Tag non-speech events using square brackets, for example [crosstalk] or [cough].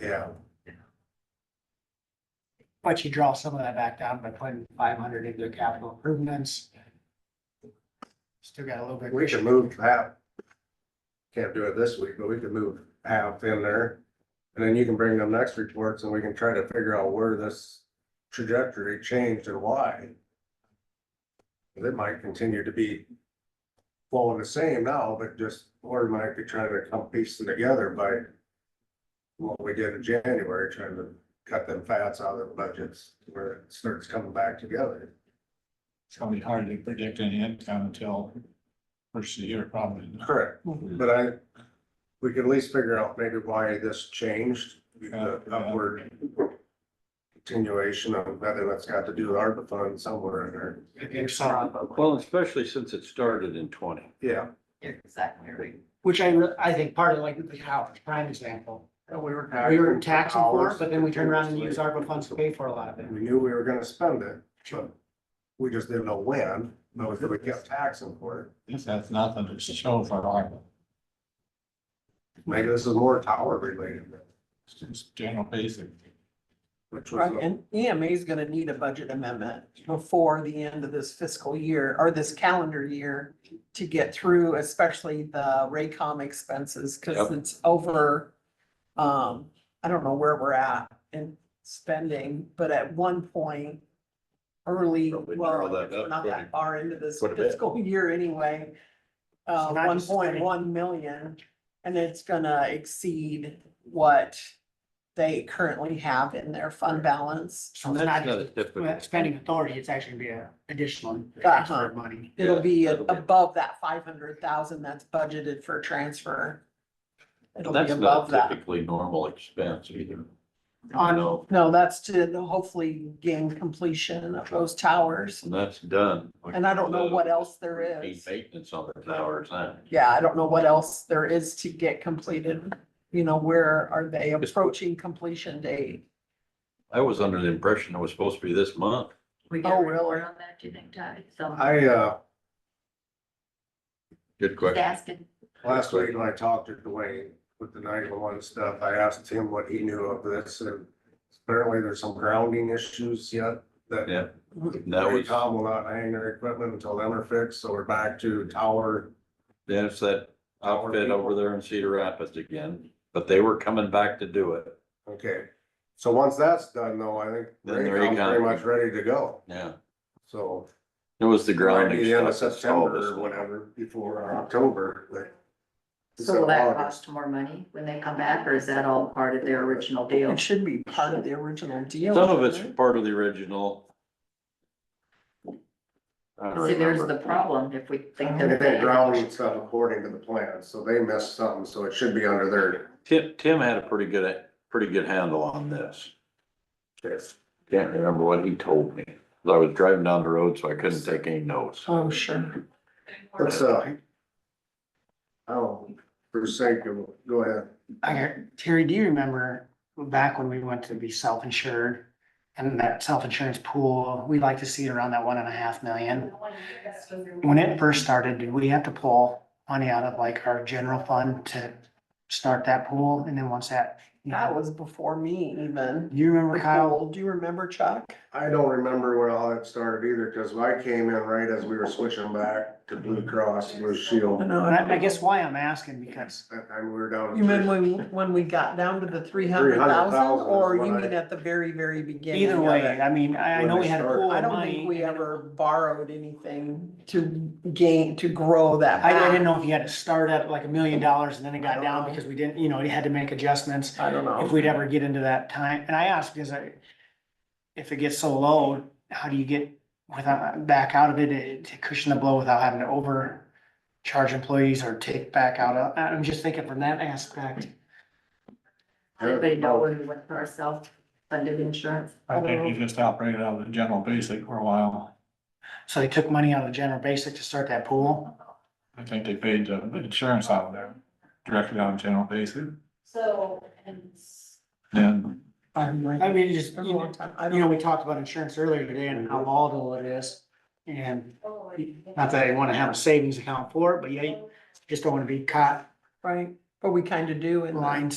Yeah, But you draw some of that back down by putting five hundred into capital improvements. Still got a little bit. we should move that. Can't do it this week, but we could move half in there. And then you can bring them next reports and we can try to figure out where this trajectory changed and why. It might continue to be following the same now, but just, or it might be trying to come piecing together by what we did in January, trying to cut them fats out of the budgets where it starts coming back together. It's gonna be hard to predict any income until first of the year, probably. Correct. Mhm. But I, we could at least figure out maybe why this changed, the upward continuation of whether that's got to do with ARPA funds somewhere in there. If so, Well, especially since it started in twenty. Yeah, Exactly right. Which I, re- I think part of like the Howard prime example, and we were. we were taxing for it, but then we turned around and used ARPA funds to pay for a lot of it. We knew we were gonna spend it, but we just didn't know when, but we kept taxing for it. This has nothing to show for ARPA, Maybe this is more tower related, it's just general basic. which Right, was, and EMA is gonna need a budget amendment before the end of this fiscal year or this calendar year to get through, especially the Raycom expenses, cause Yep. it's over. Um, I don't know where we're at in spending, but at one point early, Probably well, narrow that we're up not pretty- that far into this quite a bit. fiscal [laughs] year anyway. So Uh, not one just point one million, and it's gonna exceed what they currently have in their fund balance. So it's not That's just not typical. well, spending authority, it's actually gonna be a additional Uh-huh. transfer of money. It'll be Yeah, that'll be- above that five hundred thousand that's budgeted for transfer. It'll be That's not above that. typically normal expense either. On- No, No, that's to hopefully gain completion of those towers. and that's done. And I don't know what else there Routine is. Maintenance on the towers now. Yeah, I don't know what else there is to get completed. You know, where are they approaching completion date? I was under the impression it was supposed to be this month. We Oh, got a really? report on that, do you think, Ty? So I, uh, Good just question. asking, last week when I talked to Dwayne with the nine-one-one stuff, I asked him what he knew of this and apparently there's some grounding issues yet that Yeah, that was, Tom will not hang their equipment until them are fixed, so we're back to tower. then it's that outfit over there in Cedar Rapids again, but they were coming back to do it. Okay, so once that's done though, I think Then they're Raycom's pretty econ. much ready to go, Yeah, so. it was the might grounding be the end of stuff. that's all September this or whatever, before or October, but. so will that cost more money when they come back, or is that all part of their original deal? It should be part of the original deal. Some of it's shouldn't it? part of the original. I don't See, there's remember. the problem, if we think And they're. they paying- grounded stuff according to the plan, so they missed something, so it should be under their. Tim, Tim had a pretty good, pretty good handle on this. Can't remember what he told me. 'cause I was driving down the road, so I couldn't take any notes. Oh, sure. Let's, uh. Oh, for sake of, go ahead. I, Terry, do you remember back when we went to be self-insured? And that self-insurance pool, we like to see it around that one and a half million. When it first started, did we have to pull money out of like our general fund to start that pool? And then once that, you That know, was before me even. you remember Kyle? Nicole, Do you remember Chuck? I don't remember where all that started either, cause I came in right as we were switching back to Blue Cross Blue Shield. know. And I, I guess why I'm asking because That time we were down. to You mean when, when we got down to the three hundred 300,000 thousand, is or when you I- mean at the very, very beginning? either of way, it? I mean, I, I know we had a pool I of don't think money. we ever borrowed anything to gain, to grow that. I, I back. didn't know if you had to start at like a million dollars and then it I got don't down know. because we didn't, you know, you had to make adjustments. I don't know. if we'd ever get into that time, and I asked because I, if it gets so low, how do you get without, back out of it eh, to cushion the blow without having to overcharge employees or take back out of, I'm just thinking from that aspect. Anybody know when we went for our self-funded insurance? I think he just operated out of the general basic for a while. So they took money out of the general basic to start that pool. I think they paid the insurance out of there, directly out of general basic, So, and. then I'm like- I mean, it just, It's you been a long know, time. I you know, don't, we talked about insurance earlier today and how volatile it is. And oh, not that I wanna have a savings account for it, but yeah, you just don't wanna be caught right, but we kind of do in the- blind